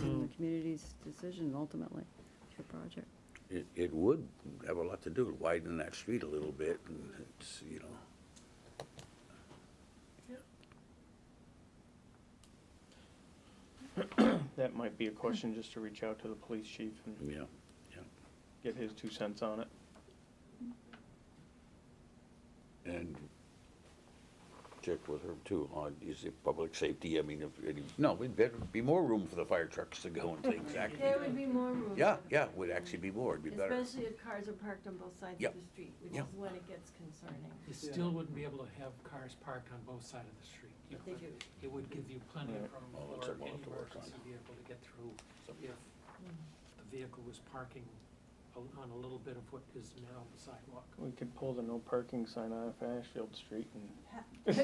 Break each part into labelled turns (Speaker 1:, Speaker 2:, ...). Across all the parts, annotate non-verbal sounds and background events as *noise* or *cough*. Speaker 1: in the community's decision ultimately, it's your project.
Speaker 2: It, it would have a lot to do, widen that street a little bit, and it's, you know,
Speaker 3: That might be a question just to reach out to the police chief and
Speaker 2: yeah, yeah.
Speaker 3: get his two cents on it.
Speaker 2: And check with her too, on, is it public safety, I mean, if, any- no, it'd better be more room for the fire trucks to go and
Speaker 4: *laughs*
Speaker 2: things,
Speaker 4: There
Speaker 2: actually.
Speaker 4: would be more room.
Speaker 2: Yeah, yeah, would actually be more, it'd be better.
Speaker 4: Especially if cars are parked on both sides
Speaker 2: Yeah.
Speaker 4: of the street, which
Speaker 2: Yeah.
Speaker 4: is when it gets concerning.
Speaker 5: You still wouldn't be able to have cars parked on both sides of the street. You
Speaker 4: They
Speaker 5: could-
Speaker 4: do.
Speaker 5: It would give you plenty of room
Speaker 2: Well, it's a
Speaker 5: for
Speaker 2: lot
Speaker 5: any
Speaker 2: to work
Speaker 5: emergency
Speaker 2: on.
Speaker 5: vehicle to get through if the vehicle was parking o- on a little bit of what is now the sidewalk.
Speaker 3: We could pull the no parking sign off Ashfield Street and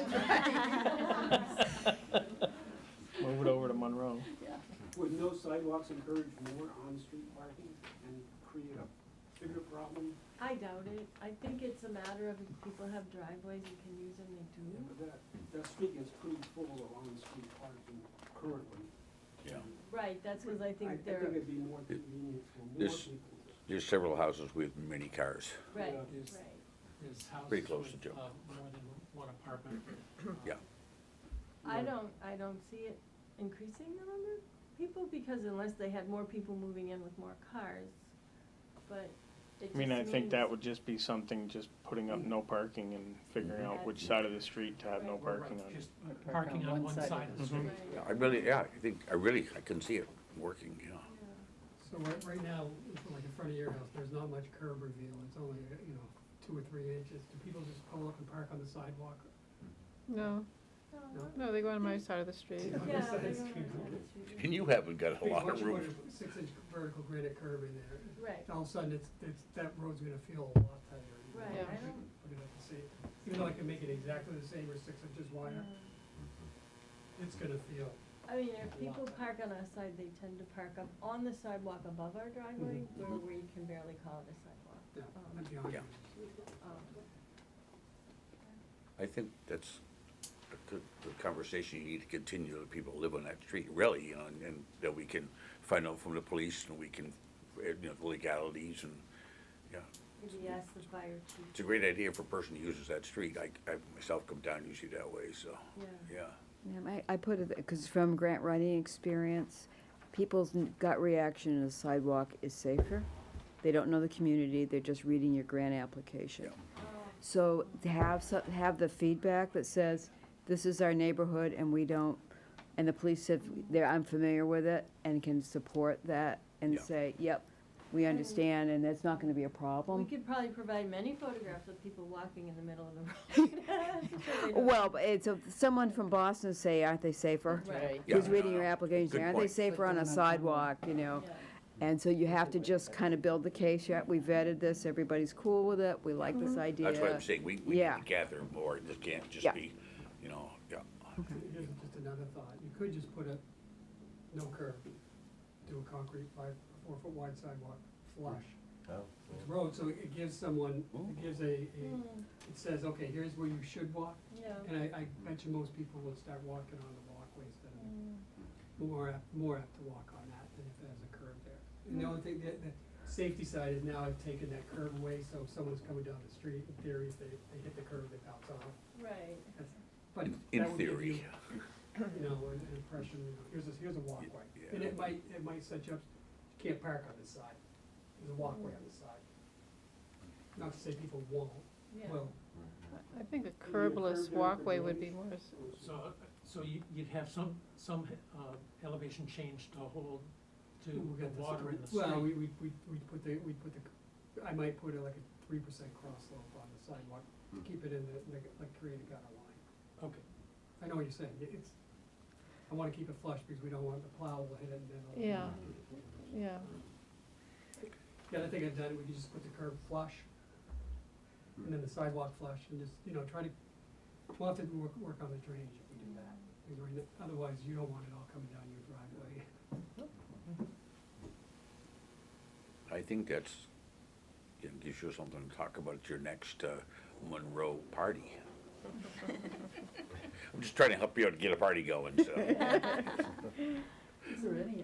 Speaker 3: move it over to Monroe.
Speaker 6: Would no sidewalks encourage more on-street parking and create a bigger problem?
Speaker 4: I doubt it. I think it's a matter of if people have driveways and can use them, they
Speaker 6: Yeah,
Speaker 4: do.
Speaker 6: but That, that street is pretty full of on-street parking currently.
Speaker 2: Yeah.
Speaker 4: Right, that's because I
Speaker 6: I I
Speaker 4: think
Speaker 6: think it'd
Speaker 4: they're,
Speaker 6: be more convenient for more
Speaker 2: This-
Speaker 6: people.
Speaker 2: There's several houses with many cars,
Speaker 4: right,
Speaker 6: Yeah.
Speaker 4: right.
Speaker 5: There's- There's houses
Speaker 2: Pretty close to
Speaker 5: with,
Speaker 2: Joe.
Speaker 5: uh, more than one apartment. uh,
Speaker 2: yeah.
Speaker 4: I don't, I don't see it increasing the number of people because unless they had more people moving in with more cars, but it
Speaker 3: I mean, I
Speaker 4: just
Speaker 3: think that
Speaker 4: means-
Speaker 3: would just be something, just putting up no parking and figuring out which side of the street to have no
Speaker 5: Mhm. Right,
Speaker 3: parking on.
Speaker 5: Just parking on one side of the street.
Speaker 4: Right.
Speaker 2: Yeah, I really, yeah, I think, I really, I can see it working, you know.
Speaker 4: Yeah.
Speaker 7: So right, right now, like in front of your house, there's not much curb reveal, it's only, you know, two or three inches. Do people just pull up and park on the sidewalk?
Speaker 8: No,
Speaker 7: No.
Speaker 8: no, they go on my side of the street.
Speaker 7: Yeah.
Speaker 4: Yeah,
Speaker 7: Side
Speaker 4: they
Speaker 7: street.
Speaker 4: don't have to.
Speaker 2: And you haven't got a lot of
Speaker 7: Once you
Speaker 2: room.
Speaker 7: put a Six-inch vertical granite curb in there,
Speaker 4: Right,
Speaker 7: all of a sudden, it's, it's, that road's gonna feel a lot tighter. you know,
Speaker 4: right,
Speaker 8: Yeah.
Speaker 4: I don't,
Speaker 7: Put it up the same, even though I can make it exactly the same or six inches wider,
Speaker 4: yeah.
Speaker 7: it's gonna feel.
Speaker 4: Um, I mean, if people park on our side, they tend to park up on the sidewalk above our driveway, where we can barely call it a sidewalk.
Speaker 7: Yeah,
Speaker 4: Um,
Speaker 7: that'd be on.
Speaker 2: Yeah.
Speaker 4: um,
Speaker 2: I think that's a good, good conversation you need to continue, the people who live on that street, really, you know, and, and that we can find out from the police and we can, you know, legalities and, yeah.
Speaker 4: Maybe ask the fire
Speaker 2: It's a
Speaker 4: chief.
Speaker 2: great idea for a person who uses that street. I, I myself come down usually that way, so,
Speaker 4: Yeah.
Speaker 2: yeah.
Speaker 1: Yeah, I, I put it, because from grant writing experience, people's gut reaction is sidewalk is safer. They don't know the community, they're just reading your grant application. So to have, so- have the feedback that says, this is our neighborhood and we don't, and the police said, they're, I'm familiar with it and can support that and
Speaker 2: Yeah.
Speaker 1: say, yep, we understand and that's not gonna be a problem.
Speaker 4: We could probably provide many photographs of people walking in the middle of the road. *laughs* So they don't-
Speaker 1: Well, but it's, a- someone from Boston say, aren't they safer?
Speaker 4: Right.
Speaker 1: Who's
Speaker 2: Yeah.
Speaker 1: reading your application, say,
Speaker 2: Good
Speaker 1: aren't they
Speaker 2: point.
Speaker 1: safer on a sidewalk, you know?
Speaker 4: Yeah.
Speaker 1: And so you have to just kind of build the case, yeah, we vetted this, everybody's cool with it, we like
Speaker 4: Mm-hmm.
Speaker 1: this idea.
Speaker 2: That's why I'm saying we, we need
Speaker 1: Yeah.
Speaker 2: to gather more. This can't
Speaker 1: Yeah.
Speaker 2: just be, you know, yeah.
Speaker 7: Here's just another thought, you could just put a no curb, do a concrete five, four foot wide sidewalk flush
Speaker 2: Oh,
Speaker 7: with the road, so it gives someone, it gives a, a-
Speaker 4: Mm,
Speaker 7: it says, okay, here's where you should walk,
Speaker 4: Yeah.
Speaker 7: and I, I bet you most people would start walking on the walkways that
Speaker 4: Mm,
Speaker 7: are more apt, more apt to walk on that than if there's a curb there. And the only thing, the, the safety side is now I've taken that curb away, so if someone's coming down the street, in theory, if they, they hit the curb, they bounce off.
Speaker 4: Right.
Speaker 7: That's- But
Speaker 2: In-
Speaker 7: that
Speaker 2: In
Speaker 7: would give
Speaker 2: theory.
Speaker 7: you- you know, an an impression, you know, here's a, here's a walkway.
Speaker 2: Yeah.
Speaker 7: And it might, it might set you up, you can't park on this side, there's a walkway on this side. Not to say people won't,
Speaker 4: Yeah.
Speaker 7: will,
Speaker 8: I think a curbless walkway would be more, s-
Speaker 5: So, uh, so you- you'd have some, some uh, elevation change to hold to
Speaker 7: We'll
Speaker 5: the
Speaker 7: get this-
Speaker 5: water in the
Speaker 7: Well, we,
Speaker 5: street.
Speaker 7: we, we we put the, we put the, I might put a- like a three percent cross slope on the sidewalk, to keep it in the, like, like create a gutter line.
Speaker 5: Okay,
Speaker 7: I know what you're saying, It- it's, I wanna keep it flush because we don't want the plow will hit it and then. it'll-
Speaker 8: yeah, yeah.
Speaker 7: The other thing I've done, we could just put the curb flush, and then the sidewalk flush, and just, you know, try to, we'll have to work, work on the drainage if we do that. Because right now- Otherwise, you don't want it all coming down your driveway.
Speaker 2: I think that's, you know, gives you something to talk about at your next uh, Monroe party. I'm just trying to help you out to get a party going, so.
Speaker 4: Is there any